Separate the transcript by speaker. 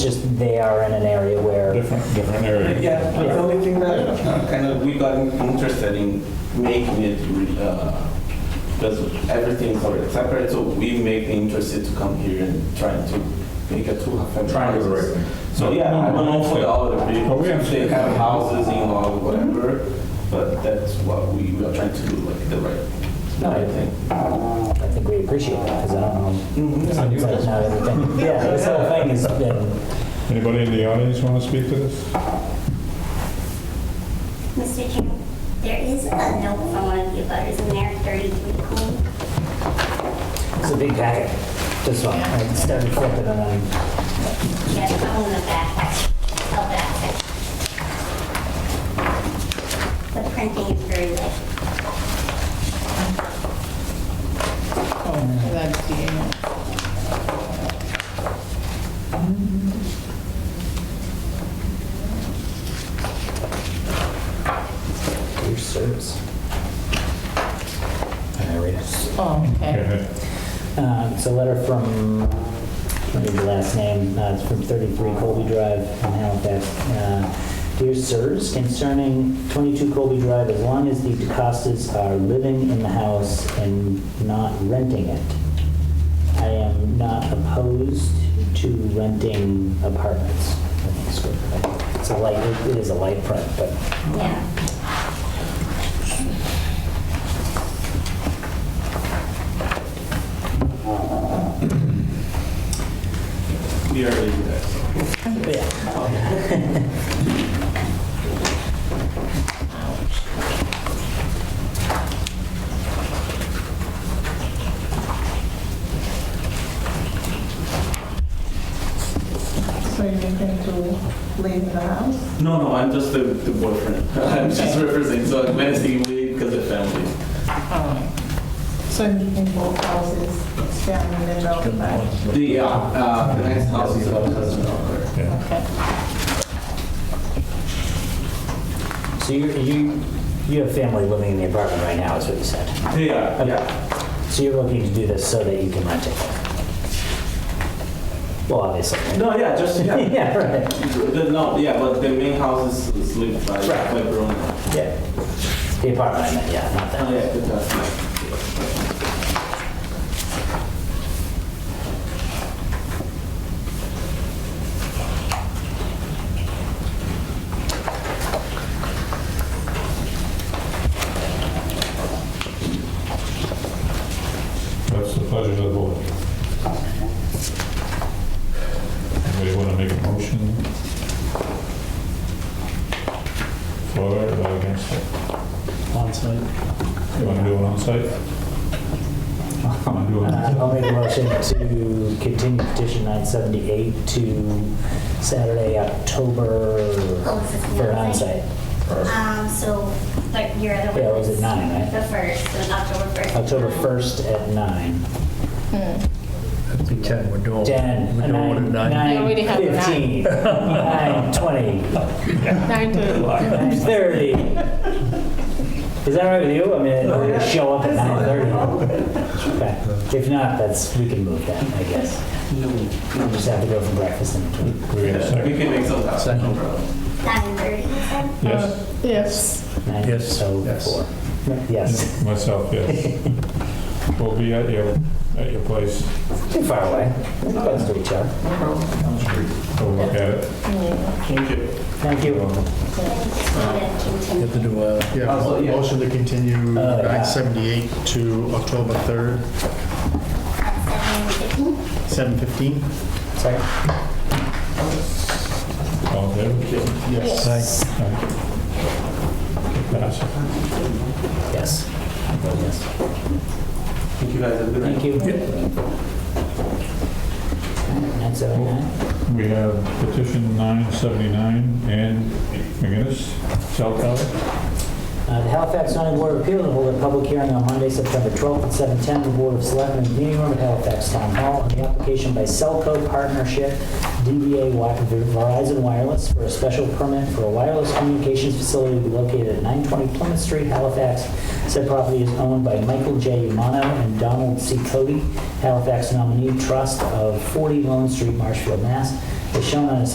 Speaker 1: just they are in an area where,
Speaker 2: different, different area.
Speaker 3: Yeah, the only thing that kind of we got interested in making it, uh, because everything's already separate, so we make the interested to come here and try to make a two family.
Speaker 2: Trying to do the right thing.
Speaker 3: So, yeah, I don't know for the other
Speaker 2: But
Speaker 3: people,
Speaker 2: we have-
Speaker 3: they have houses in law, whatever, but that's what we we are trying to do, like the right, the right thing.
Speaker 1: I think we appreciate that, because I don't know. It's like not everything- Yeah, this whole thing has been,
Speaker 2: Anybody in the audience want to speak to this?
Speaker 4: Mr. Chairman, there is a note from one of the butters in there, 33 Cool.
Speaker 1: it's a big packet, this one, I started flipping and I,
Speaker 4: Yes, I'm on the back of that section. The printing is very light.
Speaker 5: That's the email.
Speaker 1: your service. Can I read it?
Speaker 5: Oh, okay.
Speaker 2: Okay.
Speaker 1: Um, It's a letter from, what is the last name? Uh, It's from 33 Colby Drive in Halifax. Uh, Dear sirs, concerning 22 Colby Drive, as long as the DeCostas are living in the house and not renting it, I am not opposed to renting apartments. I think it's good. It's a light, it is a light print, but
Speaker 4: Yeah.
Speaker 3: We already do that, so.
Speaker 5: So you're going to leave the house?
Speaker 3: No, no, I'm just the, the boyfriend. I'm just representing, so I'm managing with, because of family.
Speaker 5: So you in both houses, family and dog back?
Speaker 3: The, uh, uh, the next house is about cousin daughter.
Speaker 2: Yeah.
Speaker 5: Okay.
Speaker 1: So you, you, you have family living in the apartment right now, is what you said?
Speaker 3: Yeah,
Speaker 1: yeah. So you're looking to do this so that you can rent it? Well, obviously.
Speaker 3: No, yeah, just, yeah.
Speaker 1: Yeah, right,
Speaker 3: The- No, yeah, but the main house is, is lived by,
Speaker 1: Right.
Speaker 3: by Bruno.
Speaker 1: yeah. The apartment, I meant, yeah, not that.
Speaker 3: Oh, yeah, good, that's nice.
Speaker 2: That's the pleasure of the board. Anybody want to make a motion? For it or against it? You want to do it on site? I'm going to do it
Speaker 1: Uh,
Speaker 2: on
Speaker 1: I'll make a motion to continue petition 978 to Saturday, October,
Speaker 4: Oh, it's
Speaker 1: for
Speaker 4: the
Speaker 1: onsite.
Speaker 4: Um, so, like, your other one.
Speaker 1: Yeah, was it nine, right?
Speaker 4: The first, so October 1st.
Speaker 1: October 1st at 9.
Speaker 6: It'd be 10, we're doing.
Speaker 1: 10,
Speaker 6: We're
Speaker 1: 9,
Speaker 6: doing one at 9.
Speaker 5: We
Speaker 1: 9,
Speaker 5: already have
Speaker 1: 15,
Speaker 5: nine.
Speaker 1: 9, 20,
Speaker 5: Nine
Speaker 1: Nine
Speaker 5: to.
Speaker 1: thirty. Is that right with you? I mean, we're gonna show up at nine thirty. Okay. If not, that's, we can move that, I guess. We'll just have to go for breakfast in between.
Speaker 2: We get a
Speaker 3: Yeah, We
Speaker 2: second?
Speaker 3: can make some happen, no problem.
Speaker 4: 9:30, you said?
Speaker 3: Uh,
Speaker 2: Yes?
Speaker 5: Yes.
Speaker 1: Nine,
Speaker 6: Yes,
Speaker 1: So four.
Speaker 6: yes.
Speaker 1: Yes.
Speaker 2: Myself, yes. We'll be at your, at your place.
Speaker 1: Too far away. We're Close to each other.
Speaker 2: We'll look at it.
Speaker 3: Thank you.
Speaker 1: Thank you.
Speaker 4: Then just wanna
Speaker 6: You
Speaker 4: continue.
Speaker 6: have to do a, yeah,
Speaker 3: Also,
Speaker 6: mo-
Speaker 3: yeah.
Speaker 6: motion to continue
Speaker 1: Oh, yeah.
Speaker 6: 978 to October 3rd,
Speaker 4: At 7:15.
Speaker 6: 7:15?
Speaker 1: Sorry.
Speaker 2: All in favor?
Speaker 6: Yes.
Speaker 2: Pass.
Speaker 1: Yes. Yes.
Speaker 3: Thank you guys, have a good night.
Speaker 1: Thank you. Nine seven nine.
Speaker 2: We have petition 979 and McGinnis, cell tower.
Speaker 1: Uh, The Halifax zoning board of appeals will hold a public hearing on Monday, September 12th at 7:10 in the Board of Selectmen's meeting room at Halifax Town Hall on the application by Cellco Partnership DBA Wi- Verizon Wireless for a special permit for a wireless communications facility to be located at 920 Plymouth Street, Halifax. Said property is owned by Michael J. Umano and Donald C. Cody, Halifax nominee trust of 40 Lone Street, Marshfield, Mass. is shown on a